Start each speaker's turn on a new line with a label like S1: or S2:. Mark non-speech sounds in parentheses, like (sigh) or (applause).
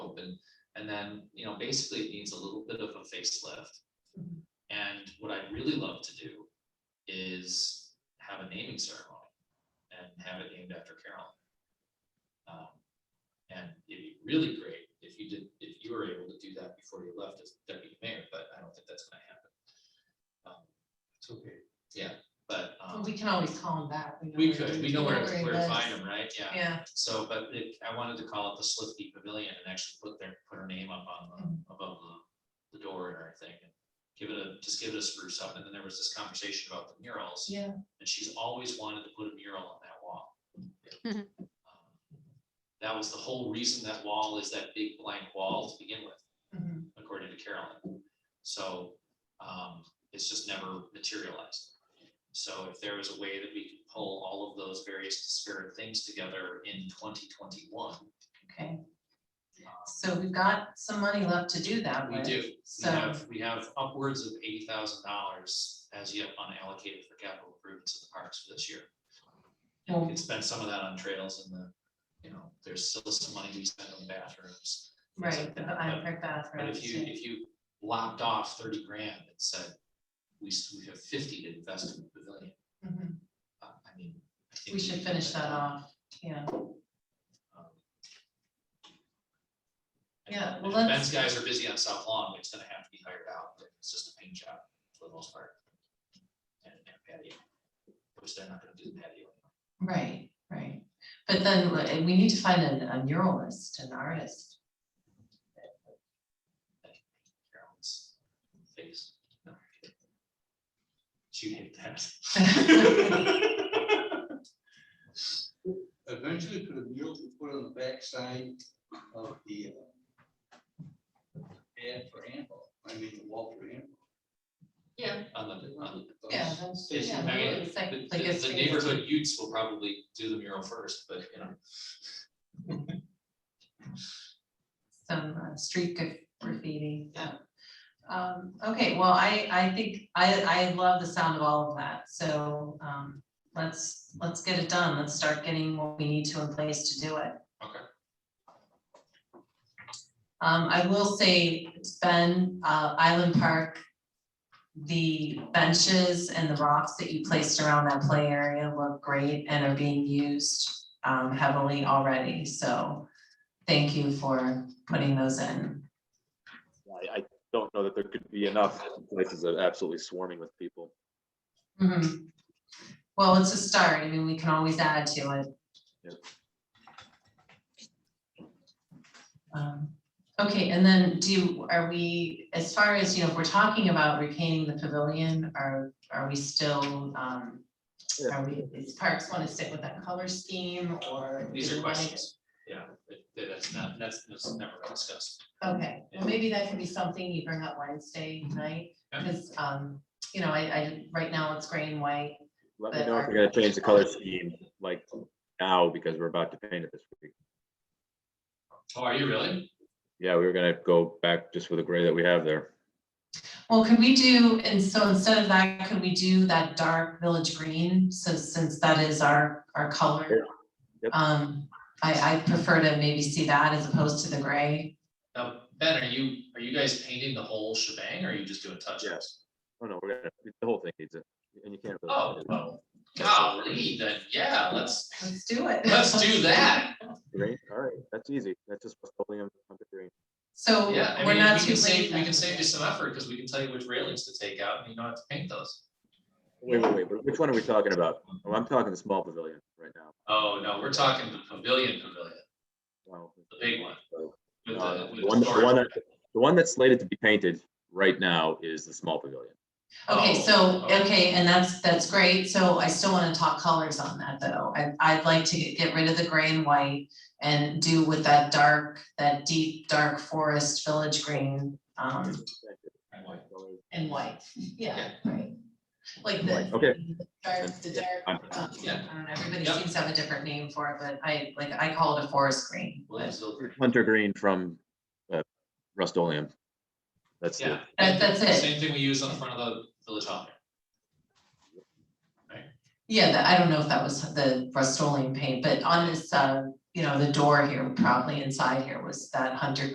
S1: and, and then, you know, basically it needs a little bit of a facelift.
S2: Mhm.
S1: And what I'd really love to do is have a naming ceremony and have it named after Carolyn. Um, and it'd be really great if you did, if you were able to do that before you left as deputy mayor, but I don't think that's gonna happen. Um,
S3: It's okay.
S1: But,
S2: Well,
S1: um,
S2: We can always call them that. know
S1: we
S2: where-
S1: could, we know where,
S2: he
S1: where to find
S2: lives.
S1: them, right? Yeah.
S2: Yeah,
S1: So, but it, I wanted to call it the Slifty Pavilion and actually put their, put her name up on
S2: Mhm.
S1: the, above the, the door and everything. and Give it a, just give it a spruce up. And then there was this conversation about the murals.
S2: yeah,
S1: And she's always wanted to put a mural on that wall. Um,
S4: Mhm.
S1: That was the whole reason that wall is that big blank wall to begin with
S2: mhm.
S1: according to Carolyn. So um, it's just never materialized. So if there was a way that we could pull all of those various disparate things together in twenty twenty-one,
S2: okay. So we've got some money left to do that
S1: we
S2: with.
S1: do. We
S2: So,
S1: have, we have upwards of eighty thousand dollars as yet unallocated for capital improvements in the parks for this year.
S2: Oh.
S1: And we can spend some of that on trails and the, you know, there's still some money we spend on bathrooms. things like
S2: right,
S1: that,
S2: but I heard that.
S1: But if you,
S2: right,
S1: if you lopped off thirty grand and said, we, s- we have fifty to invest in the pavilion,
S2: yeah. Mhm.
S1: uh, I mean. I think
S2: We should
S1: can
S2: finish
S1: do
S2: that off, yeah.
S1: Um,
S2: Yeah,
S1: and
S2: well,
S1: if Ben's
S2: let's-
S1: guys are busy on South Lawn, it's gonna have to be hired out, but it's just a paint job for the most part. And and patio, which they're not gonna do the patio.
S2: Right, right. But then like, we need to find a a muralist, an artist.
S1: Carolyn's face. No, I'm kidding. She'd hate
S2: (laughs)
S1: that. (laughs)
S3: Eventually put a mural to put on the backside of the uh, ad for handball, I mean, the wall for handball.
S1: Yeah. On the, on the
S2: Yeah, that's-
S1: It's-
S2: yeah,
S1: I mean,
S2: really, it's like-
S1: The,
S2: like a
S1: the- the
S2: street.
S1: neighborhood youths will probably do the mural first, but you know,
S2: some uh, street graf- graffiti. yeah. Um, okay, well, I, I think, I, I love the sound of all of that, so, um, let's, let's get it done, let's start getting what we need to in place to do it.
S1: Okay.
S2: Um, I will say, it's been, uh, Island Park, the benches and the rocks that you placed around that play area look great and are being used, um, heavily already, so thank you for putting those in.
S5: I, I don't know that there could be enough places that are absolutely swarming with people.
S2: Mm-hmm. Well, it's a start. I mean, we can always add to it.
S5: Yep.
S2: Um, Okay, and then do, you- are we, as far as, you know, if we're talking about repainting the pavilion, are, are we still, um,
S5: Yeah.
S2: are we, is Parks want to stick with that color scheme or?
S1: these
S2: do
S1: are
S2: we wanna-
S1: questions. Yeah, that- that's not, that's, that's never been discussed.
S2: Okay, well, maybe that can be something you bring up Wednesday night,
S1: Mm-hmm. Yeah.
S2: because, um, you know, I, I, right now it's gray and white.
S5: Let me
S2: But
S5: know if
S2: are-
S5: we're gonna change the color scheme, like now, because we're about to paint it this week.
S1: Oh, are you really?
S5: Yeah, we were gonna go back just with the gray that we have there.
S2: Well, could we do, and so instead of that, could we do that dark village green, so since that is our, our color?
S5: Yep.
S2: Um, I, I prefer to maybe see that as opposed to the gray.
S1: Now, Ben, are you, are you guys painting the whole shebang or are you just doing touch ups?
S5: Oh, no, we're gonna, the whole thing needs it, and you can't. really-
S1: Oh, well, golly, then, yeah, let's,
S2: Let's do it.
S1: let's do that.
S5: Green, all right, that's easy. That's just petroleum under green.
S2: So
S1: Yeah, I
S2: we're
S1: mean,
S2: not
S1: we
S2: too
S1: can
S2: late.
S1: save, we
S2: then.
S1: can save you some effort because we can tell you which railings to take out and you don't have to paint those.
S5: Wait, wait, wait, but which one are we talking about? Oh, I'm talking the small pavilion right now.
S1: Oh, no, we're talking the pavilion pavilion,
S5: Wow.
S1: the big one. with
S5: Uh,
S1: the- with
S5: the one- the
S1: storage.
S5: one that- The one that's slated to be painted right now is the small pavilion.
S2: Okay,
S1: Oh,
S2: so,
S1: okay.
S2: okay, and that's, that's great, so I still wanna talk colors on that though, I, I'd like to get get rid of the gray and white. And do with that dark, that deep, dark forest village green, um, and white, yeah, right. Like the.
S5: Okay.
S2: the Dark, the dark, um,
S1: Yeah.
S2: I don't know, everybody
S1: Yep.
S2: seems to have a different name for it, but I, like, I call it a forest green. but
S1: Williamsville.
S5: Hunter Green from uh, Rust-Oleum. That's the,
S1: Yeah.
S2: That, that's it.
S1: Same thing we use on the front of the village hall.
S2: Yeah, that- I don't know if that was the Rust-Oleum paint, but on this, uh, you know, the door here, probably inside here was that hunter